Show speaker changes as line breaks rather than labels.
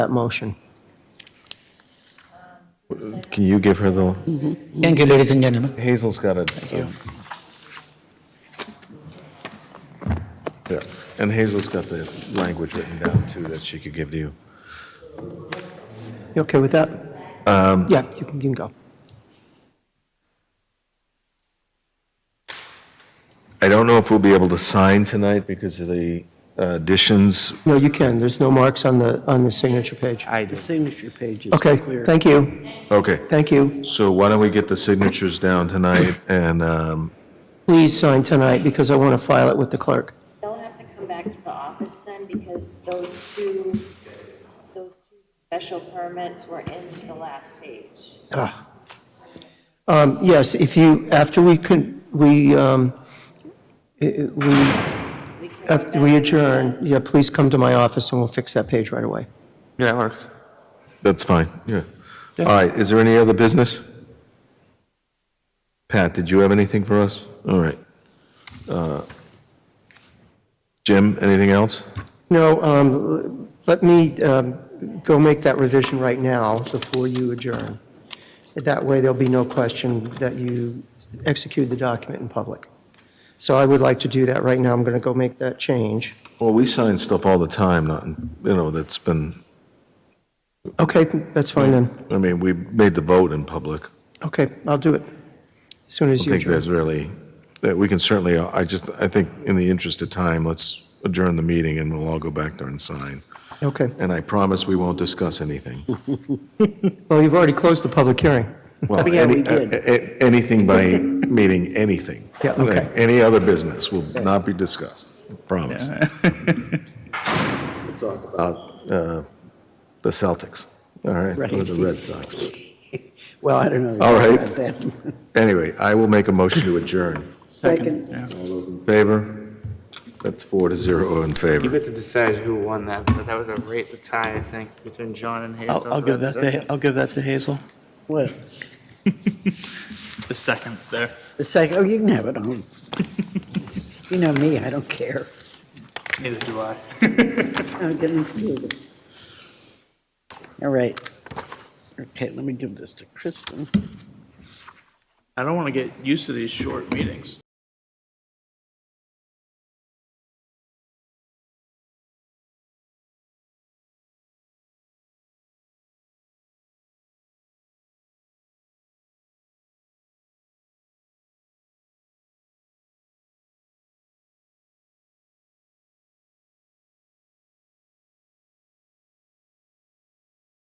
that motion.
Can you give her the,
Thank you, ladies and gentlemen.
Hazel's got it. um, um, There, and Hazel's got the language written down too that she could give to you.
You okay with that? Yeah, you can you can go.
I don't know if we'll be able to sign tonight because of the uh, additions.
No, you can, there's no marks on the, on the signature page.
I do. Signature page is
Okay,
clear.
thank you,
Okay,
thank you.
so why don't we get the signatures down tonight and, um,
Please sign tonight because I want to file it with the clerk.
They'll have to come back to the office then, because those two, those two special permits were into the last page.
Um, Yes, if you, after we can, we, um, i- i- we,
We can-
after we adjourn, yeah, please come to my office and we'll fix that page right away.
Yeah, it works.
that's fine, yeah. All right, is there any other business? Pat, did you have anything for us? All right. Uh, Jim, anything else?
No, um, l- let me um, go make that revision right now before you adjourn. That way, there'll be no question that you execute the document in public. So I would like to do that right now. I'm going to go make that change.
Well, we sign stuff all the time, not, you know, that's been,
Okay, that's fine then.
I mean, we made the vote in public.
Okay, I'll do it as soon
I
as you
think
adjourn.
that's really, that we can certainly, I just, I think in the interest of time, let's adjourn the meeting and we'll all go back there and sign.
Okay.
And I promise we won't discuss anything.
Well, you've already closed the public hearing.
Well,
yeah,
any-
we did.
a- a- Anything by meaning anything.
Yeah, okay.
Any other business will not be discussed, I promise. We'll talk about uh, the Celtics, all right? Or the Red Sox.
Well, I don't know.
All right.
about that.
Anyway, I will make a motion to adjourn.
Second.
In Favor? That's four to zero in
You
favor.
get to decide who won that, but that was a rate to tie, I think, between John and Hazel.
I'll, I'll give that to, I'll give that to Hazel.
What?
The second there.
The second, oh, you can have it on. You know me, I don't care.
Neither do I.
I'm getting confused. All right. Okay, let me give this to Kristen.
I don't want to get used to these short meetings.